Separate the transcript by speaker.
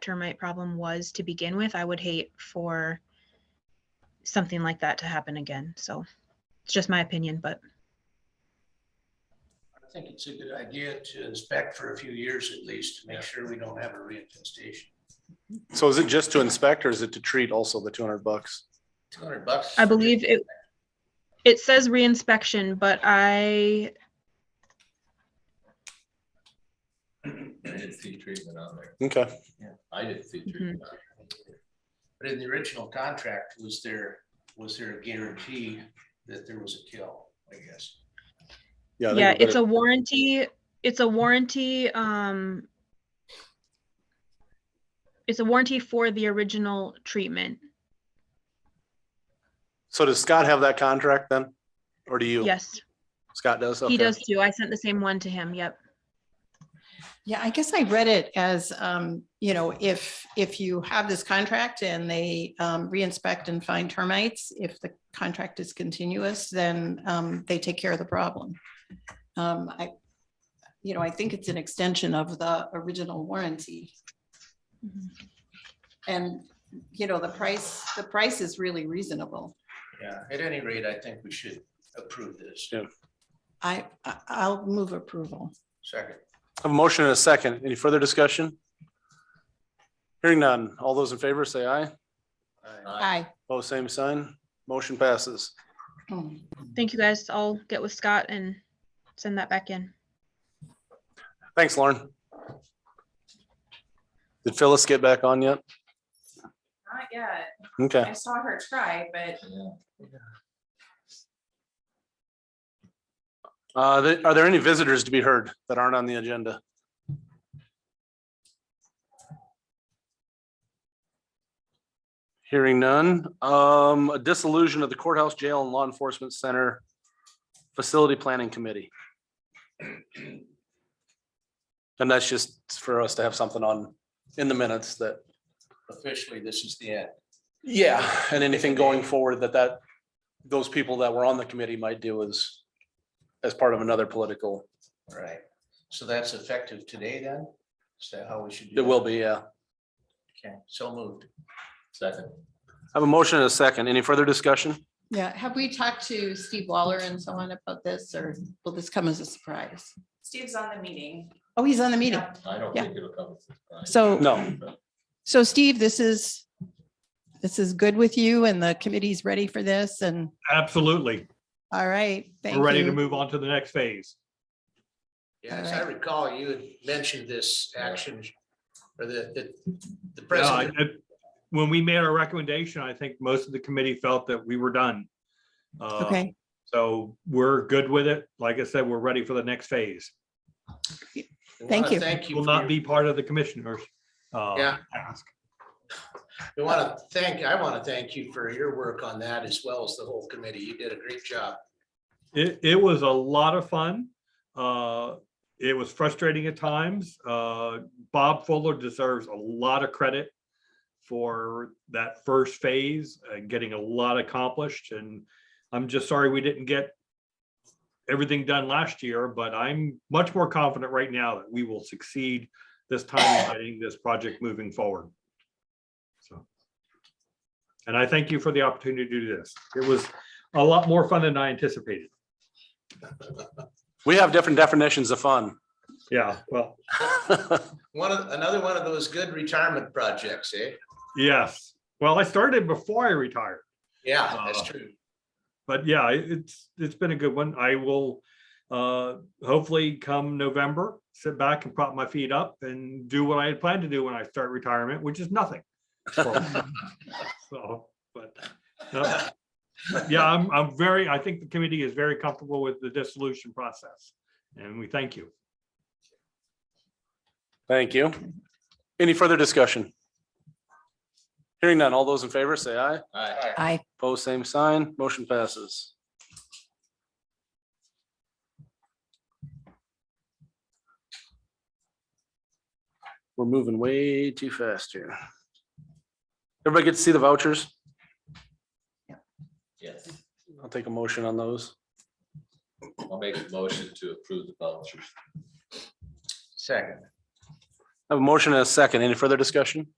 Speaker 1: termite problem was to begin with. I would hate for something like that to happen again. So it's just my opinion, but
Speaker 2: I think it's a good idea to inspect for a few years at least, to make sure we don't have a reinfestation.
Speaker 3: So is it just to inspect or is it to treat also the two hundred bucks?
Speaker 2: Two hundred bucks.
Speaker 1: I believe it, it says reinspection, but I,
Speaker 4: I didn't see treatment on there.
Speaker 3: Okay,
Speaker 4: I didn't
Speaker 5: Mm-hmm.
Speaker 4: see treatment. on there.
Speaker 2: But in the original contract, was there, was there a guarantee that there was a kill, I guess?
Speaker 3: yeah. I think
Speaker 1: yeah,
Speaker 3: we
Speaker 1: it's a
Speaker 3: better-
Speaker 1: warranty, it's a warranty, um, it's a warranty for the original treatment.
Speaker 3: So does Scott have that contract then? Or do you?
Speaker 1: Yes,
Speaker 3: Scott does?
Speaker 1: he
Speaker 3: Okay.
Speaker 1: does too. I sent the same one to him. Yep.
Speaker 5: Yeah, I guess I read it as, um, you know, if, if you have this contract and they, um, re-inspect and find termites, if the contract is continuous, then, um, they take care of the problem. Um, I, you know, I think it's an extension of the original warranty
Speaker 3: Mm-hmm.
Speaker 5: and, you know, the price, the price is really reasonable.
Speaker 2: Yeah, at any rate, I think we should approve this.
Speaker 3: Yeah.
Speaker 5: I, I- I'll move approval.
Speaker 2: Second,
Speaker 3: Have a motion and a second. Any further discussion? Hearing none. All those in favor say aye.
Speaker 2: I-
Speaker 5: Aye.
Speaker 3: Both same sign. Motion passes.
Speaker 5: Hmm.
Speaker 1: Thank you guys. I'll get with Scott and send that back in.
Speaker 3: Thanks, Lauren. Did Phyllis get back on yet?
Speaker 6: Not yet.
Speaker 3: Okay.
Speaker 6: I saw her try, but
Speaker 4: Yeah.
Speaker 3: Uh, th- are there any visitors to be heard that aren't on the agenda? Hearing none, um, a dissolution of the courthouse, jail and law enforcement center facility planning committee. And that's just for us to have something on in the minutes that,
Speaker 2: Officially, this is the end.
Speaker 3: yeah, and anything going forward that that, those people that were on the committee might do is as part of another political,
Speaker 2: All right. So that's effective today then? Is that how we should do
Speaker 3: it
Speaker 2: that?
Speaker 3: will be, yeah.
Speaker 2: Okay, so moved.
Speaker 4: Second.
Speaker 3: I have a motion and a second. Any further discussion?
Speaker 5: Yeah, have we talked to Steve Waller and so on about this, or will this come as a surprise?
Speaker 6: Steve's on the meeting.
Speaker 5: Oh, he's on the meeting.
Speaker 4: I don't
Speaker 5: Yeah.
Speaker 4: think it'll come. as a surprise.
Speaker 5: So.
Speaker 3: No.
Speaker 5: So Steve, this is, this is good with you and the committee's ready for this and,
Speaker 7: Absolutely.
Speaker 5: all right, thank
Speaker 7: We're ready to
Speaker 5: you.
Speaker 7: move on to the next phase.
Speaker 2: Yeah, as I
Speaker 5: Alright.
Speaker 2: recall, you had mentioned this action or the, the, the
Speaker 7: No, Uh, I-
Speaker 2: president.
Speaker 7: I- When we made our recommendation, I think most of the committee felt that we were done. Uh,
Speaker 5: Okay,
Speaker 7: So we're good with it. Like I said, we're ready for the next phase.
Speaker 2: we
Speaker 5: thank
Speaker 2: wanna
Speaker 5: you.
Speaker 2: Thank you.
Speaker 7: Will
Speaker 2: for
Speaker 7: not
Speaker 2: your-
Speaker 7: be part of the commissioners. uh,
Speaker 2: Yeah.
Speaker 7: task.
Speaker 2: We want to thank, I want to thank you for your work on that as well as the whole committee. You did a great job.
Speaker 7: It, it was a lot of fun. Uh, It was frustrating at times. Uh, Bob Fuller deserves a lot of credit for that first phase, uh, getting a lot accomplished. And I'm just sorry we didn't get everything done last year, but I'm much more confident right now that we will succeed this time in getting this project moving forward. So. And I thank you for the opportunity to do this. It was a lot more fun than I anticipated.
Speaker 3: We have different definitions of fun.
Speaker 7: Yeah, well,
Speaker 2: One of, another one of those good retirement projects, eh?
Speaker 7: yes. Well, I started before I retired,
Speaker 2: Yeah, that's
Speaker 7: Uh,
Speaker 2: true.
Speaker 7: but yeah, it- it's, it's been a good one. I will uh hopefully come November, sit back and prop my feet up and do what I had planned to do when I start retirement, which is nothing. So, but, no. But yeah, I'm, I'm very, I think the committee is very comfortable with the dissolution process, and we thank you.
Speaker 3: Thank you. Any further discussion? Hearing none, all those in favor say aye.
Speaker 4: Aye.
Speaker 5: I,
Speaker 3: Pose same sign, motion passes. We're moving way too fast here. Everybody get to see the vouchers?
Speaker 4: Yes.
Speaker 3: I'll take a motion on those.
Speaker 4: I'll make a motion to approve the vouchers.
Speaker 2: Second.
Speaker 3: I have a motion and a second. Any further discussion?